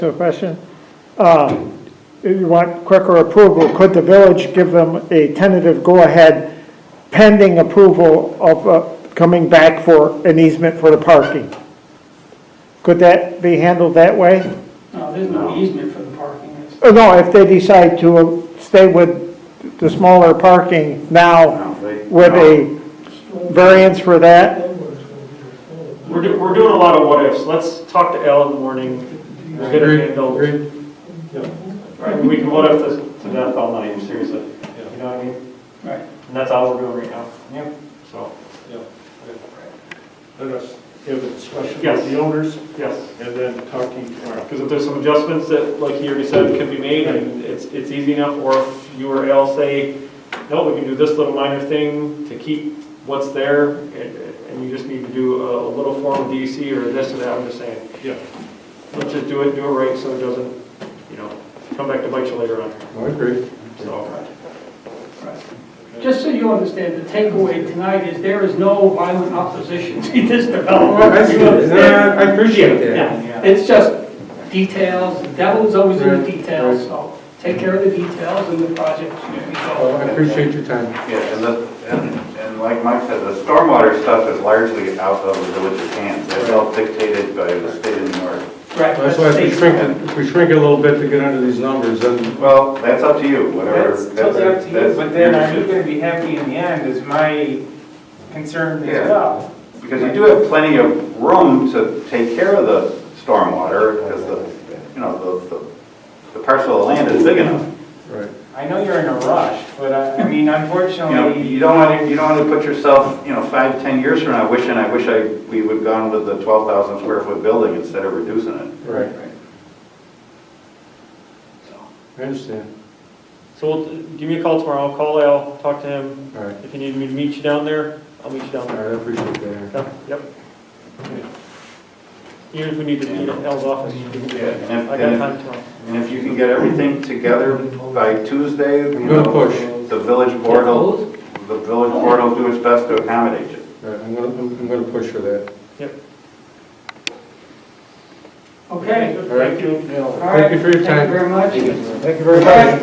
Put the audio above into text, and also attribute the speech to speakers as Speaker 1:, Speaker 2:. Speaker 1: To a question? Uh, If you want quicker approval, could the village give them a tentative go-ahead pending approval of uh, coming back for an easement for the parking? Could that be handled that way?
Speaker 2: No, there's no easement for the parking. It's-
Speaker 1: Or no, if they decide to stay with the smaller parking now with a variance for that?
Speaker 3: We're, do- we're doing a lot of what ifs. Let's talk to Al in the morning. We'll get it handled. Right, We can what if this to death all night, seriously. You know what I mean?
Speaker 2: Right.
Speaker 3: And that's all we're doing right now. Yeah. So,
Speaker 4: Let us have a discussion
Speaker 3: Yes.
Speaker 4: with the owners
Speaker 3: yes,
Speaker 4: and then talk to you tomorrow.
Speaker 3: because if there's some adjustments that, like he already said, can be made and it's, it's easy enough, or if you or Al say, no, we can do this little minor thing to keep what's there and, and you just need to do a little form of DC or this or that, I'm just saying.
Speaker 4: Yeah.
Speaker 3: Let's just do it, do it right so it doesn't, you know, come back to bite you later on.
Speaker 5: Oh,
Speaker 4: I agree.
Speaker 3: So,
Speaker 2: Just so you understand, the takeaway tonight is there is no violent opposition to this development.
Speaker 5: That's good. No, I I appreciate that.
Speaker 2: Yeah, It's just details, the devil is always in the details, so take care of the details and the project should be
Speaker 5: Well, I
Speaker 2: going.
Speaker 5: appreciate your time.
Speaker 6: Yeah, and the, and, and like Mike said, the stormwater stuff is largely out of the village's hands. That's all dictated by the state of New York.
Speaker 2: Right,
Speaker 5: That's why if we
Speaker 2: that's-
Speaker 5: shrink it, if we shrink it a little bit to get under these numbers, then
Speaker 6: Well, that's up to you, whatever.
Speaker 7: That's totally up to you, but then are you gonna be happy in the end is my concern
Speaker 6: Yeah.
Speaker 7: as well.
Speaker 6: Because you do have plenty of room to take care of the stormwater, because the, you know, the, the- the parcel of land is big enough.
Speaker 5: right.
Speaker 7: I know you're in a rush, but I,
Speaker 3: uh,
Speaker 7: I mean,
Speaker 6: You know, you
Speaker 7: unfortunately,
Speaker 6: don't want to, you don't want to put yourself, you know, five, ten years from now, wishing, I wish I, we would have gone with the twelve thousand square foot building instead of reducing it.
Speaker 5: Right. I understand.
Speaker 3: so we'll- give me a call tomorrow, I'll call Al, talk to him.
Speaker 5: All right.
Speaker 3: If you need me to meet you down there, I'll meet you down
Speaker 5: All
Speaker 3: there.
Speaker 5: right, I appreciate that.
Speaker 3: Yep, Yep. Even if we need to meet at Al's office.
Speaker 6: Yeah.
Speaker 3: I got time tomorrow.
Speaker 6: And if you can get everything together by Tuesday, you
Speaker 5: I'm gonna
Speaker 6: know,
Speaker 5: push.
Speaker 6: the village board will, the village board will do its best to accommodate you.
Speaker 5: All right, I'm gonna, I'm I'm gonna push for that.
Speaker 2: Okay.
Speaker 5: All right.
Speaker 3: you.
Speaker 2: All
Speaker 5: Thank you for your
Speaker 2: Thank
Speaker 5: time.
Speaker 2: you very much.
Speaker 5: Thank you very much.